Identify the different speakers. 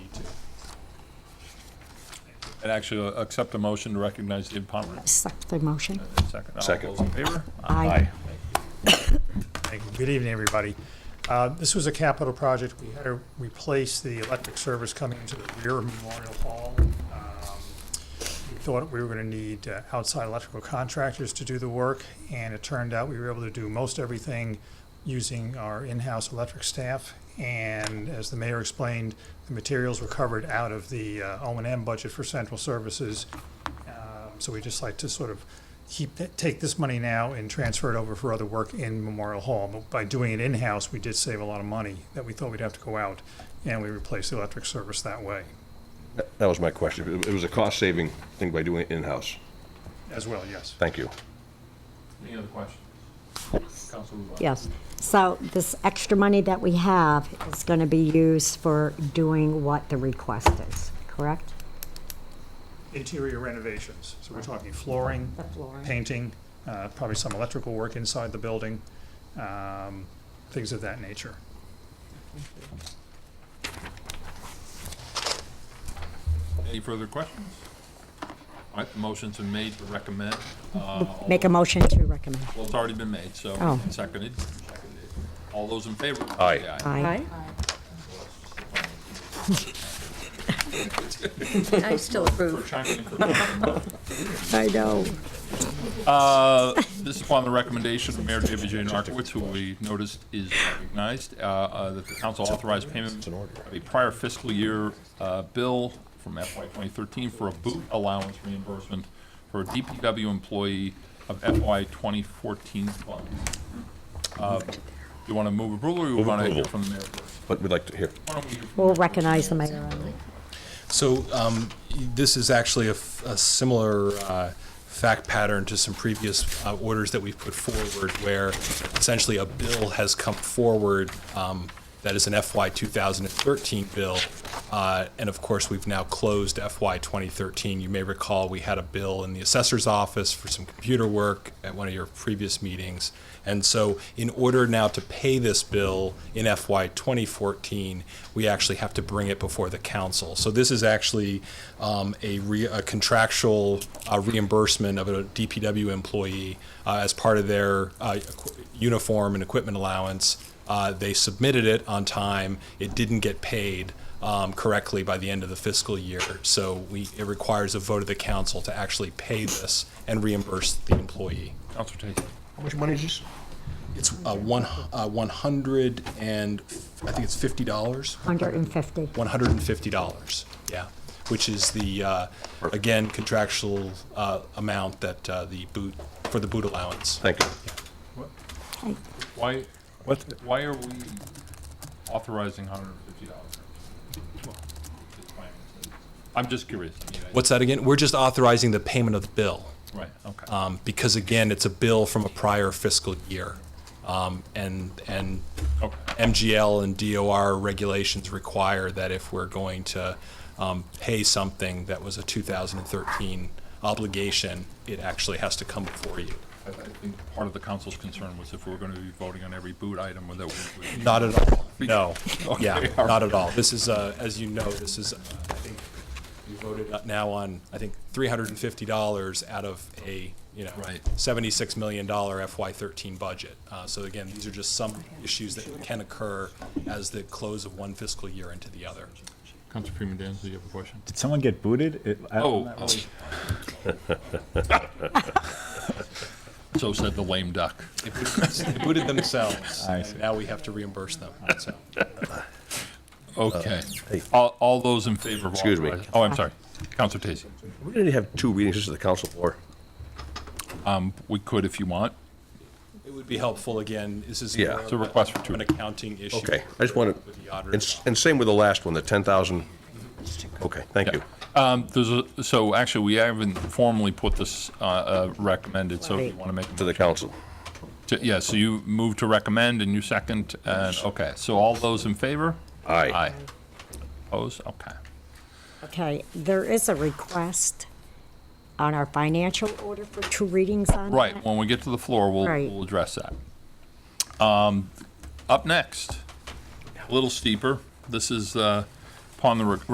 Speaker 1: And actually, uh, accept a motion to recognize David Pomeroy.
Speaker 2: Accept the motion.
Speaker 1: Second.
Speaker 3: Second.
Speaker 1: All those in favor?
Speaker 2: Aye.
Speaker 4: Thank you. Good evening, everybody. Uh, This was a capital project. We had to replace the electric service coming into the rear of Memorial Hall. Um, We Thought we were going to need uh, outside electrical contractors to do the work, and it turned out we were able to do most everything using our in-house electric staff. And as the mayor explained, the materials were covered out of the uh, O and M budget for central services. Um, So we just like to sort of keep, that- take this money now and transfer it over for other work in Memorial Hall. But By doing it in-house, we did save a lot of money that we thought we'd have to go out, and we replaced the electric service that way
Speaker 3: That was my question. It it was a cost-saving thing by doing it in-house.
Speaker 4: as well, yes.
Speaker 3: Thank you.
Speaker 1: Any other questions? Council Ruble.
Speaker 2: Yes. So this extra money that we have is going to be used for doing what the request is, correct?
Speaker 4: Interior renovations, so we're talking flooring,
Speaker 2: The flooring.
Speaker 4: painting, uh, probably some electrical work inside the building, um, things of that nature.
Speaker 1: Any further questions? All right, the motion's been made to recommend. uh, all
Speaker 2: Make a
Speaker 1: those-
Speaker 2: motion to recommend.
Speaker 1: Well, it's already been made, so
Speaker 2: Oh.
Speaker 1: and seconded. Seconded. All those in favor?
Speaker 3: Aye.
Speaker 1: Say
Speaker 2: Aye.
Speaker 5: I still approve.
Speaker 1: For chiming in.
Speaker 2: I know.
Speaker 1: Uh, This is upon the recommendation of Mayor David J. Narcoitz, who we noticed is recognized, uh, uh, that the council authorized payment of a prior fiscal year uh, bill from FY 2013 for a boot allowance reimbursement for a DPW employee of FY 2014 fund. Uh, You want to move approval, or you
Speaker 3: Move
Speaker 1: want to hear
Speaker 3: approval.
Speaker 1: from the mayor first?
Speaker 3: But we'd like to hear.
Speaker 1: Why don't we hear from
Speaker 2: We'll recognize the mayor.
Speaker 6: So um, this is actually a, f- a similar uh, fact pattern to some previous uh, orders that we've put forward, where essentially a bill has come forward um, that is an FY 2013 bill, uh, and of course we've now closed FY 2013. You may recall we had a bill in the assessor's office for some computer work at one of your previous meetings. And so, in order now to pay this bill in FY 2014, we actually have to bring it before the council. So this is actually um, a, re- a contractual uh, reimbursement of a DPW employee uh, as part of their uh, equi- uniform and equipment allowance. Uh, they submitted it on time. It didn't get paid um, correctly by the end of the fiscal year. So we, it requires a vote of the council to actually pay this and reimburse the employee.
Speaker 1: Council Tate.
Speaker 3: How much money is this?
Speaker 6: It's uh, one, uh, 100 and, f- I think it's $50,
Speaker 2: 150.
Speaker 6: $150, yeah, which is the, uh, again, contractual uh, amount that uh, the boot, for the boot allowance.
Speaker 3: Thank you.
Speaker 1: Why, why are we authorizing $150? I'm just curious. I mean, I-
Speaker 6: What's that again? We're just authorizing the payment of the bill.
Speaker 1: Right, okay.
Speaker 6: um, because again, it's a bill from a prior fiscal year. Um, and, and
Speaker 1: Okay.
Speaker 6: MGL and DOR regulations require that if we're going to um, pay something that was a 2013 obligation, it actually has to come before you.
Speaker 1: I I think part of the council's concern was if we were going to be voting on every boot item, whether we would.
Speaker 6: Not at all, no.
Speaker 1: Okay, all
Speaker 6: Yeah,
Speaker 1: right.
Speaker 6: not at all. This is, uh, as you know, this is, uh, I think, we voted up now on, I think, $350 out of a, you know,
Speaker 1: Right.
Speaker 6: $76 million FY13 budget. Uh, So again, these are just some issues that can occur as the close of one fiscal year into the other.
Speaker 1: Council Freeman Danz, do you have a question?
Speaker 7: Did someone get booted? It- I-
Speaker 1: Oh. oh. So said the lame duck.
Speaker 6: They booted- they booted themselves,
Speaker 7: I
Speaker 6: and
Speaker 7: see.
Speaker 6: now we have to reimburse them, so.
Speaker 1: Uh, Okay. All, all those in favor of
Speaker 3: Excuse me.
Speaker 1: authorizing- Oh, I'm sorry. Council Tacey.
Speaker 3: We didn't have two readings. This is the council floor.
Speaker 1: We could if you want.
Speaker 6: It would be helpful, again, this is.
Speaker 3: Yeah.
Speaker 6: more
Speaker 1: It's a request for
Speaker 6: of
Speaker 1: two.
Speaker 6: An accounting issue.
Speaker 3: Okay, I just wanted,
Speaker 6: With the
Speaker 3: and
Speaker 6: auditor's
Speaker 3: s- and same with the last one, the 10,000. Okay, thank you.
Speaker 1: Um, There's a, so actually, we haven't formally put this uh, uh, recommended, so if you want to make. a
Speaker 3: To the council.
Speaker 1: To- Yeah, so you move to recommend and you second, and, okay, so all those in favor?
Speaker 3: Aye.
Speaker 1: Aye. Opposed? Okay.
Speaker 2: Okay, there is a request on our financial order for two readings on that.
Speaker 1: Right, when we get to the floor, we'll,
Speaker 2: Right.
Speaker 1: we'll address Um, that. Um, Up next, a little steeper, this is uh, upon the re-